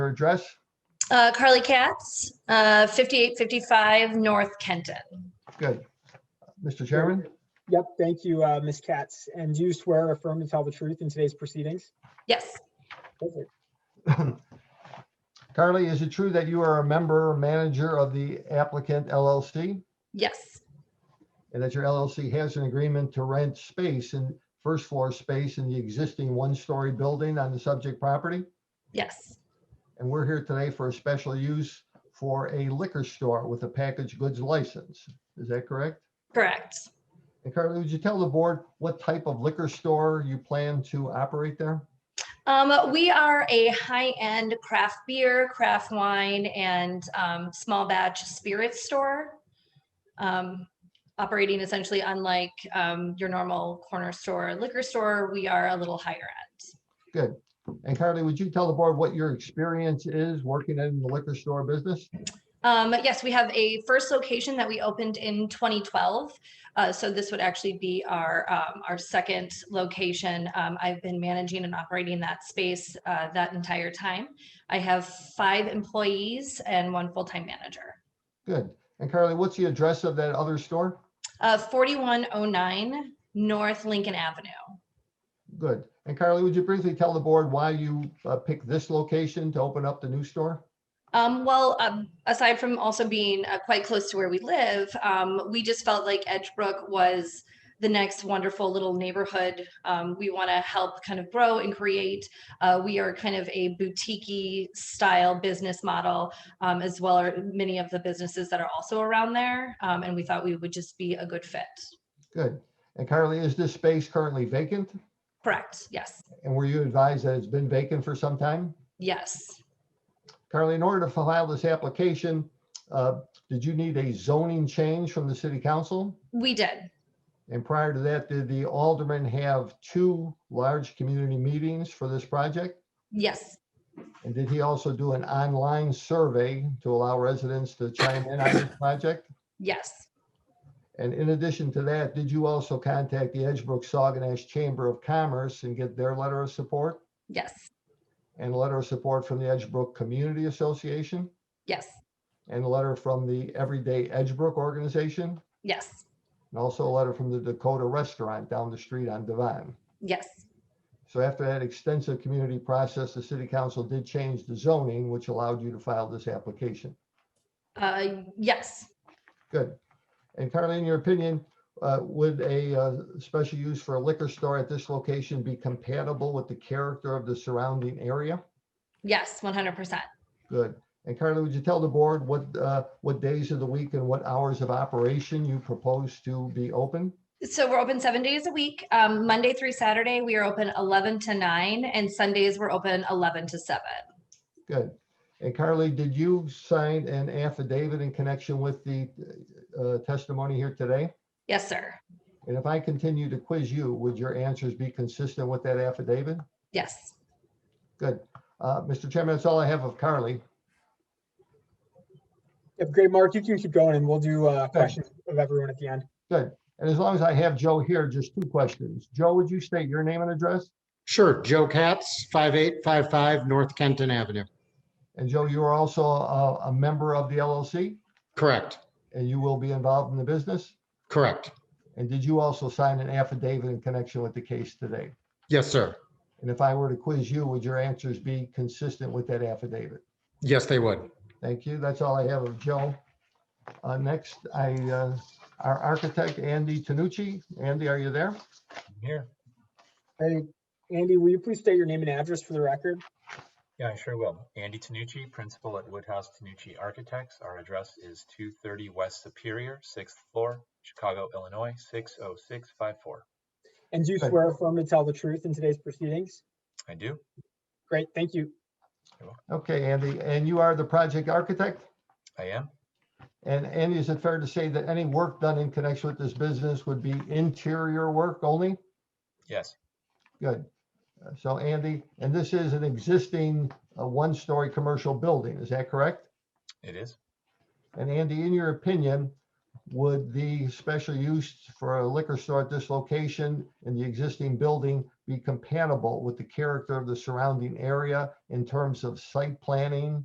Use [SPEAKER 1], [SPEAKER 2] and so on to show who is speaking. [SPEAKER 1] address?
[SPEAKER 2] Uh, Carly Katz, uh, 5855 North Kenton.
[SPEAKER 1] Good. Mr. Chairman,
[SPEAKER 3] Yep, thank you, uh, Ms. Katz. And do you swear or affirm to tell the truth in today's proceedings?
[SPEAKER 2] Yes,
[SPEAKER 3] Perfect.
[SPEAKER 1] Carly, is it true that you are a member, or manager of the applicant LLC?
[SPEAKER 2] yes,
[SPEAKER 1] and that your LLC has an agreement to rent space and first floor space in the existing one-story building on the subject property.
[SPEAKER 2] yes,
[SPEAKER 1] And we're here today for a special use for a liquor store with a packaged goods license. Is that correct?
[SPEAKER 2] correct.
[SPEAKER 1] And Carly, would you tell the board what type of liquor store you plan to operate there?
[SPEAKER 2] Um, we are a high-end craft beer, craft wine, and um, small batch spirits store. Um, operating essentially unlike um, your normal corner store, liquor store, we are a little higher end.
[SPEAKER 1] And Carly, would you tell the board what your experience is working in the liquor store business?
[SPEAKER 2] Um, yes, we have a first location that we opened in 2012. Uh, so this would actually be our um, our second location. Um, I've been managing and operating that space uh, that entire time. I have five employees and one full time manager.
[SPEAKER 1] Good. And Carly, what's the address of that other store?
[SPEAKER 2] Uh, 4109 North Lincoln Avenue.
[SPEAKER 1] Good. And Carly, would you briefly tell the board why you uh, picked this location to open up the new store?
[SPEAKER 2] Um, well, um, aside from also being uh, quite close to where we live, um, we just felt like Edgebrook was the next wonderful little neighborhood. Um, we want to help kind of grow and create. Uh, we are kind of a boutique style business model, um, as well as many of the businesses that are also around there. Um, and we thought we would just be a good fit.
[SPEAKER 1] Good. And Carly, is this space currently vacant?
[SPEAKER 2] Correct. Yes.
[SPEAKER 1] And were you advised that it's been vacant for some time?
[SPEAKER 2] Yes.
[SPEAKER 1] Carly, in order to file this application, uh, did you need a zoning change from the city council?
[SPEAKER 2] We did.
[SPEAKER 1] And prior to that, did the aldermen have two large community meetings for this project?
[SPEAKER 2] Yes.
[SPEAKER 1] And did he also do an online survey to allow residents to chime in on this project?
[SPEAKER 2] Yes.
[SPEAKER 1] And in addition to that, did you also contact the Edgebrook Saguenash Chamber of Commerce and get their letter of support?
[SPEAKER 2] Yes.
[SPEAKER 1] And a letter of support from the Edgebrook Community Association?
[SPEAKER 2] Yes.
[SPEAKER 1] And a letter from the Everyday Edgebrook Organization?
[SPEAKER 2] Yes.
[SPEAKER 1] And also a letter from the Dakota Restaurant down the street on Devon.
[SPEAKER 2] Yes.
[SPEAKER 1] So after that extensive community process, the city council did change the zoning, which allowed you to file this application.
[SPEAKER 2] Uh, yes.
[SPEAKER 1] Good. And Carly, in your opinion, uh, would a uh, special use for a liquor store at this location be compatible with the character of the surrounding area?
[SPEAKER 2] Yes. 100%.
[SPEAKER 1] Good. And Carly, would you tell the board what, uh, what days of the week and what hours of operation you propose to be open?
[SPEAKER 2] So we're open seven days a week. Um, Monday through Saturday, we are open 11 to 9, and Sundays, we're open 11 to 7.
[SPEAKER 1] Good. And Carly, did you sign an affidavit in connection with the uh, testimony here today?
[SPEAKER 2] Yes, sir.
[SPEAKER 1] And if I continue to quiz you, would your answers be consistent with that affidavit?
[SPEAKER 2] Yes.
[SPEAKER 1] Good. Uh, Mr. Chairman, that's all I have of Carly.
[SPEAKER 3] Yep, great, Mark. You can keep going and we'll do uh, questions of everyone at the end.
[SPEAKER 1] And as long as I have Joe here, just two questions. Joe, would you state your name and address?
[SPEAKER 4] Sure, Joe Katz, 5855 North Kenton Avenue.
[SPEAKER 1] And Joe, you are also a, a member of the LLC
[SPEAKER 4] Correct,
[SPEAKER 1] and you will be involved in the business?
[SPEAKER 4] correct.
[SPEAKER 1] And did you also sign an affidavit in connection with the case today?
[SPEAKER 4] Yes, sir.
[SPEAKER 1] And if I were to quiz you, would your answers be consistent with that affidavit?
[SPEAKER 4] Yes, they would.
[SPEAKER 1] Thank you. That's all I have of Joe. Uh, next, I, uh, our architect, Andy Tanucci. Andy, are you there?
[SPEAKER 5] Here,
[SPEAKER 3] Hey, Andy, will you please state your name and address for the record?
[SPEAKER 5] yeah, I sure will. Andy Tanucci, principal at Woodhouse Tanucci Architects. Our address is 230 West Superior, sixth floor, Chicago, Illinois, 60654.
[SPEAKER 3] And do you
[SPEAKER 1] Sure.
[SPEAKER 3] swear or affirm to tell the truth in today's proceedings?
[SPEAKER 5] I do.
[SPEAKER 3] Great, thank you.
[SPEAKER 1] Okay, Andy, and you are the project architect?
[SPEAKER 5] I am.
[SPEAKER 1] And Andy, is it fair to say that any work done in connection with this business would be interior work only?
[SPEAKER 5] Yes,
[SPEAKER 1] Good. Uh, So Andy, and this is an existing uh, one-story commercial building, is that correct?
[SPEAKER 5] it is.
[SPEAKER 1] And Andy, in your opinion, would the special use for a liquor store at this location in the existing building be compatible with the character of the surrounding area in terms of site planning,